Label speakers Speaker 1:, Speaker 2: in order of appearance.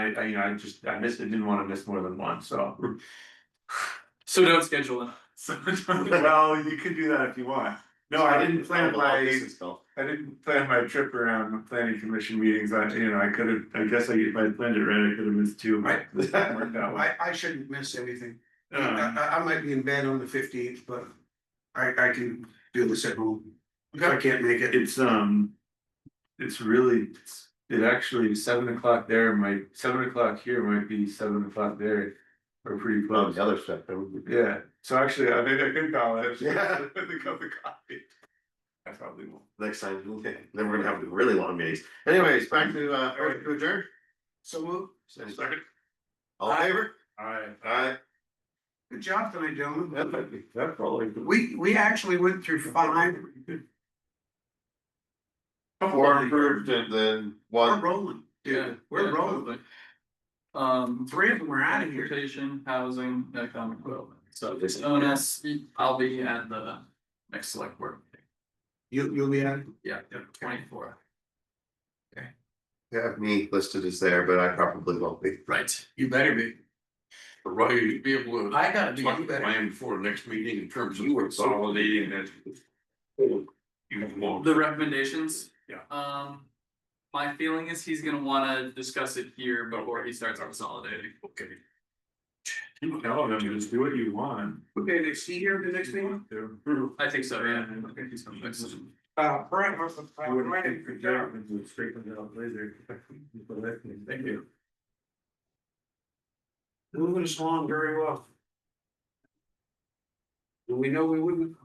Speaker 1: I, I, you know, I just, I missed, I didn't wanna miss more than one, so.
Speaker 2: So don't schedule it.
Speaker 1: So, well, you could do that if you want. No, I didn't plan my, I didn't plan my trip around the planning commission meetings, I, you know, I could have, I guess I, if I planned it right, I could have missed two. but it worked out well.
Speaker 3: I, I shouldn't miss anything. I,
Speaker 1: Um,
Speaker 3: I, I might be in bed on the fifteenth, but I, I can do this at home. If I can't make it,
Speaker 1: It's, um, it's really, it's, it actually, seven o'clock there might, seven o'clock here might be seven o'clock there, or pretty
Speaker 4: Well,
Speaker 1: close.
Speaker 4: the other stuff, that would be.
Speaker 1: Yeah, so actually, I think I could call it.
Speaker 4: Yeah.
Speaker 1: With a cup of coffee. I probably won't.
Speaker 4: next time, okay, then we're gonna have really long meetings. Anyways, back to, uh, Eric to adjourn.
Speaker 3: so move.
Speaker 4: Second. All in favor?
Speaker 1: Alright.
Speaker 2: Uh,
Speaker 4: Aye.
Speaker 3: Good job tonight, gentlemen.
Speaker 4: That might be, that probably.
Speaker 3: We, we actually went through five,
Speaker 4: Four approved and then
Speaker 3: we're
Speaker 4: one.
Speaker 3: rolling,
Speaker 2: Yeah,
Speaker 3: dude, we're
Speaker 2: yeah,
Speaker 3: rolling.
Speaker 2: totally. Um.
Speaker 3: Three of them are out of here.
Speaker 2: Transportation, housing, economic development, so if it's onus, I'll be at the next select board, meeting.
Speaker 3: You, you'll be out.
Speaker 2: yeah, twenty four.
Speaker 4: Have me listed as there, but I probably won't be.
Speaker 2: Right.
Speaker 5: You better be. Right, be able to
Speaker 2: I gotta be.
Speaker 5: talk plan before next meeting in terms of consolidating that. You won't.
Speaker 2: The recommendations?
Speaker 5: Yeah.
Speaker 2: Um, my feeling is he's gonna wanna discuss it here before he starts consolidating.
Speaker 5: Okay.
Speaker 1: You tell them, just do what you want.
Speaker 3: Okay, next year, the next thing.
Speaker 2: I think so, yeah.
Speaker 1: Yeah.
Speaker 2: Okay, he's gonna fix it.
Speaker 3: Uh, Brent,
Speaker 1: I would have taken it down and would straighten it up later. Thank you.
Speaker 3: Moving us along very well. Do we know we wouldn't